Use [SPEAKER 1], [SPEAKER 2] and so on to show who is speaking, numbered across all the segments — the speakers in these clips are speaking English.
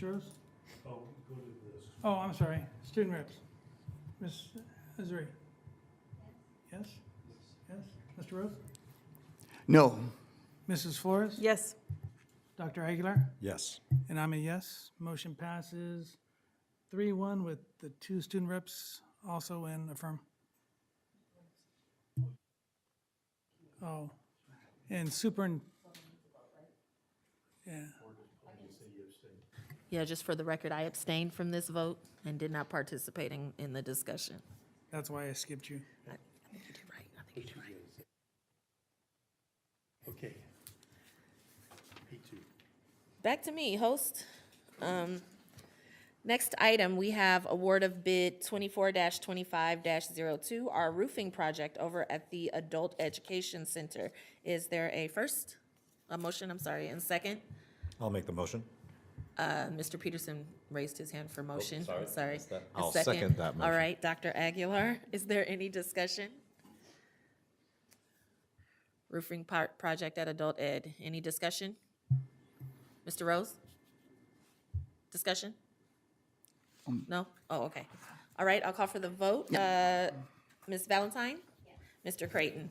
[SPEAKER 1] Rose?
[SPEAKER 2] Oh, go to this.
[SPEAKER 1] Oh, I'm sorry, student reps. Ms. Azari? Yes? Yes? Mr. Rose?
[SPEAKER 3] No.
[SPEAKER 1] Mrs. Flores?
[SPEAKER 4] Yes.
[SPEAKER 1] Dr. Aguilar?
[SPEAKER 3] Yes.
[SPEAKER 1] And I'm a yes. Motion passes three one with the two student reps also in affirm. Oh, and super, yeah.
[SPEAKER 4] Yeah, just for the record, I abstained from this vote and did not participate in, in the discussion.
[SPEAKER 1] That's why I skipped you.
[SPEAKER 4] I I think you did right. I think you did right.
[SPEAKER 2] Okay. Me too.
[SPEAKER 4] Back to me, host. Um, Next item, we have award of bid twenty-four twenty-five 2 our roofing project over at the Adult Education Center. Is there a first, a motion, I'm sorry, and second?
[SPEAKER 5] I'll make the motion.
[SPEAKER 4] Uh, Mr. Peterson raised his hand for motion.
[SPEAKER 5] Oh, sorry,
[SPEAKER 4] I'm Sorry.
[SPEAKER 5] missed that.
[SPEAKER 4] A
[SPEAKER 5] I'll second that
[SPEAKER 4] All
[SPEAKER 5] motion.
[SPEAKER 4] right, Dr. Aguilar, is there any discussion? Roofing part, project at Adult Ed, any discussion? Mr. Rose? Discussion? No? Oh, okay. All right, I'll call for the vote. Uh, Ms. Valentine? Mr. Creighton?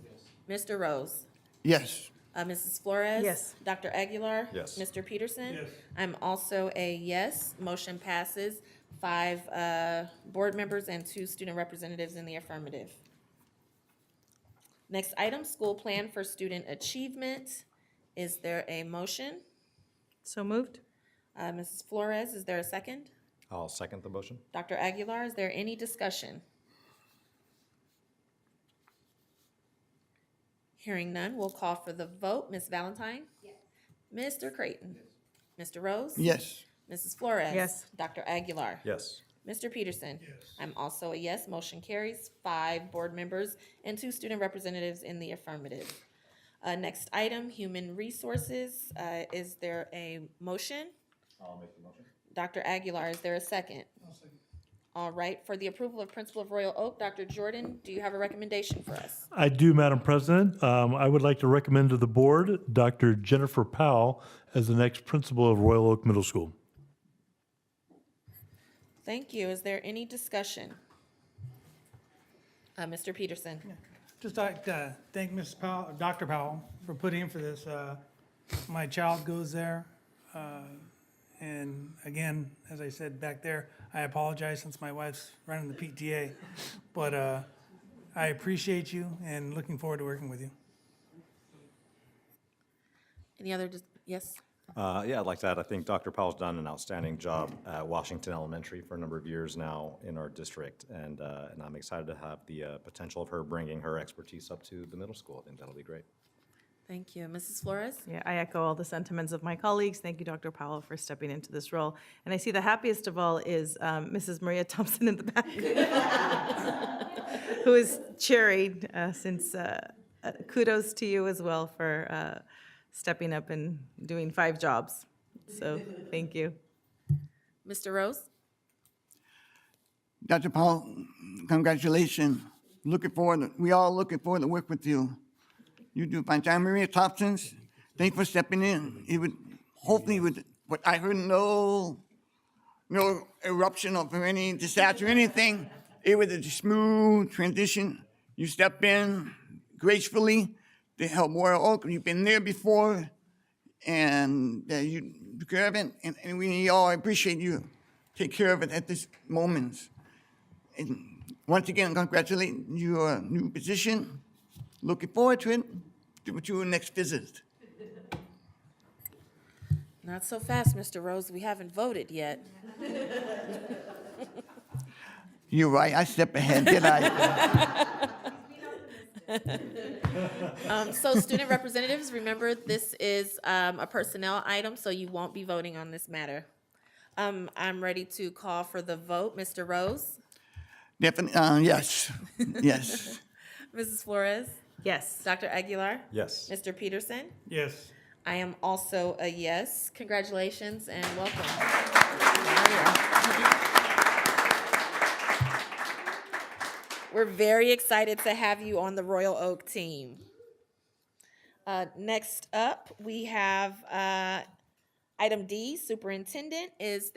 [SPEAKER 4] Mr. Rose?
[SPEAKER 3] Yes.
[SPEAKER 4] Uh, Mrs. Flores?
[SPEAKER 6] Yes.
[SPEAKER 4] Dr. Aguilar?
[SPEAKER 5] Yes.
[SPEAKER 4] Mr. Peterson?
[SPEAKER 2] Yes.
[SPEAKER 4] I'm also a yes. Motion passes. Five, uh, board members and two student representatives in the affirmative. Next item, school plan for student achievement. Is there a motion?
[SPEAKER 6] So moved?
[SPEAKER 4] Uh, Mrs. Flores, is there a second?
[SPEAKER 5] I'll second the motion.
[SPEAKER 4] Dr. Aguilar, is there any discussion? Hearing none, we'll call for the vote. Ms. Valentine? Yes. Mr. Creighton? Mr. Rose?
[SPEAKER 3] Yes.
[SPEAKER 4] Mrs. Flores?
[SPEAKER 6] Yes.
[SPEAKER 4] Dr. Aguilar?
[SPEAKER 5] Yes.
[SPEAKER 4] Mr. Peterson? Yes. I'm also a yes. Motion carries five board members and two student representatives in the affirmative. Uh, next item, human resources. Uh, is there a motion?
[SPEAKER 5] I'll make the motion.
[SPEAKER 4] Dr. Aguilar, is there a 2nd All right, for the approval of Principal of Royal Oak, Dr. Jordan, do you have a recommendation for us?
[SPEAKER 2] I do, Madam President. Um, I would like to recommend to the board Dr. Jennifer Powell as the next principal of Royal Oak Middle School.
[SPEAKER 4] Thank you. Is there any discussion? Uh, Mr. Peterson?
[SPEAKER 1] Just like to thank Ms. Powell, Dr. Powell, for putting in for this. Uh, My child goes there. uh, And again, as I said back there, I apologize since my wife's running the PTA. But uh, I appreciate you and looking forward to working with you.
[SPEAKER 4] Any other, dis- yes?
[SPEAKER 5] Uh, yeah, I'd like to add, I think Dr. Powell's done an outstanding job at Washington Elementary for a number of years now in our district. And, uh, and I'm excited to have the, uh, potential of her bringing her expertise up to the middle school. I think that'll be great.
[SPEAKER 4] Thank you. Mrs. Flores?
[SPEAKER 6] Yeah, I echo all the sentiments of my colleagues. Thank you, Dr. Powell, for stepping into this role. And I see the happiest of all is um, Mrs. Maria Thompson in the back, who is cheering uh, since uh, uh, kudos to you as well for uh, stepping up and doing five jobs. So thank you.
[SPEAKER 4] Mr. Rose?
[SPEAKER 3] Dr. Paul, congratulations. Looking forward, we all looking forward to work with you. You do fine. John Maria Thompson's, thanks for stepping in. It would, hopefully would, but I heard no, no eruption of any disaster, anything. It was a smooth transition. You stepped in gracefully to help Royal Oak. You've been there before and that you you care of it, and, and we all appreciate you take care of it at this moment. And once again, congratulate your new position. Looking forward to it, to to your next visit.
[SPEAKER 4] Not so fast, Mr. Rose. We haven't voted yet.
[SPEAKER 3] You're right, I stepped ahead, did I?
[SPEAKER 4] Um, so student representatives, remember, this is, um, a personnel item, so you won't be voting on this matter. Um, I'm ready to call for the vote. Mr. Rose?
[SPEAKER 3] Definitely, uh, yes, yes.
[SPEAKER 4] Mrs. Flores?
[SPEAKER 6] Yes.
[SPEAKER 4] Dr. Aguilar?
[SPEAKER 5] Yes.
[SPEAKER 4] Mr. Peterson?
[SPEAKER 1] Yes.
[SPEAKER 4] I am also a yes. Congratulations and welcome. We're very excited to have you on the Royal Oak team. Uh, Next up, we have uh, item D, Superintendent. Is